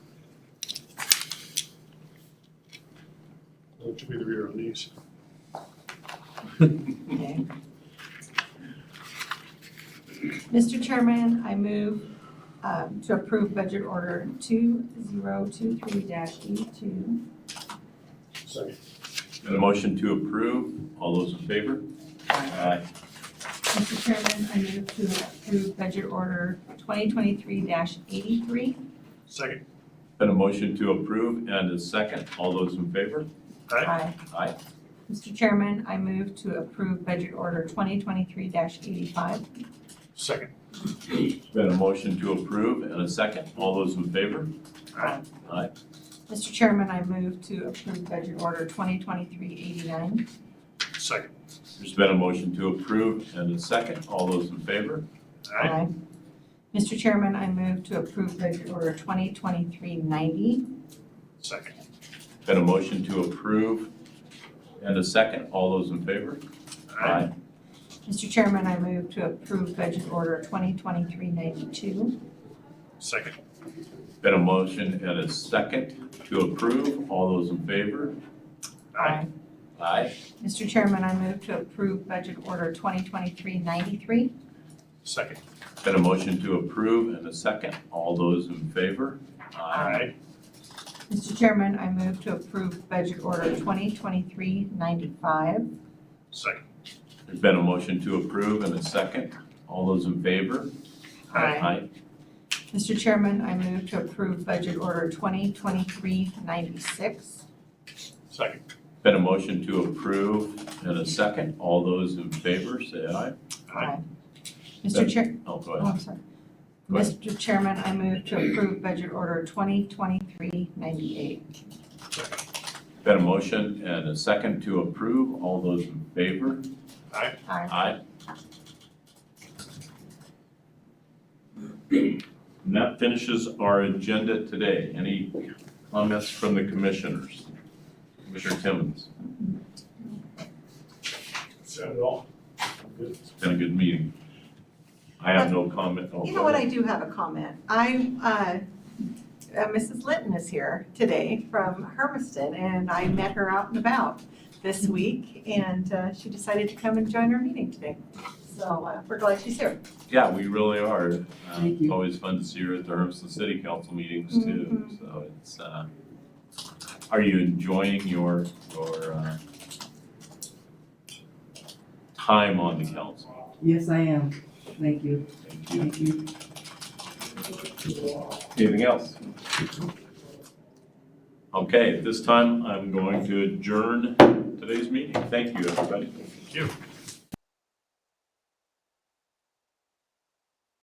which will be the reader on these. Okay. Mr. Chairman, I move um, to approve budget order E 2023-E2. Second. Got a motion to approve. All those in favor? Aye. Mr. Chairman, I move to approve budget order 2023-83. Second. Got a motion to approve and a second. All those in favor? Aye. Aye. Mr. Chairman, I move to approve budget order 2023-85. Second. Got a motion to approve and a second. All those in favor? Aye. Aye. Mr. Chairman, I move to approve budget order 2023-89. Second. There's been a motion to approve and a second. All those in favor? Aye. Mr. Chairman, I move to approve budget order 2023-90. Second. Got a motion to approve and a second. All those in favor? Mr. Chairman, I move to approve budget order 2023-92. Second. Got a motion and a second to approve. All those in favor? Aye. Aye. Mr. Chairman, I move to approve budget order 2023-93. Second. Got a motion to approve and a second. All those in favor? Aye. Mr. Chairman, I move to approve budget order 2023-95. Second. There's been a motion to approve and a second. All those in favor? Aye. Mr. Chairman, I move to approve budget order 2023-96. Second. Been a motion to approve and a second. All those in favor, say aye. Aye. Mr. Chair, Oh, go Oh, ahead. I'm sorry. Go ahead. Mr. Chairman, I move to approve budget order 2023-98. Been a motion and a second to approve. All those in favor? Aye. Aye. And that finishes our agenda today. Any comments from the commissioners? Commissioner Timmons, Set it all. Good. it's been a good meeting. I have no comment. Oh, You go know what, ahead. I do have a comment. I, uh, uh, Mrs. Linton is here today from Hermiston, and I met her out and about this week, and uh, she decided to come and join our meeting today. So uh, we're glad she's here. Yeah, we really are. Uh, Thank you. Always fun to see her at the Hermiston City Council meetings too, Mm-hmm. Mhm. so it's, uh, are you enjoying your, your, uh, time on the council? Yes, I am. Thank you, Thank you. thank you. Anything else? Okay, at this time, I'm going to adjourn today's meeting. Thank you, everybody. Thank you.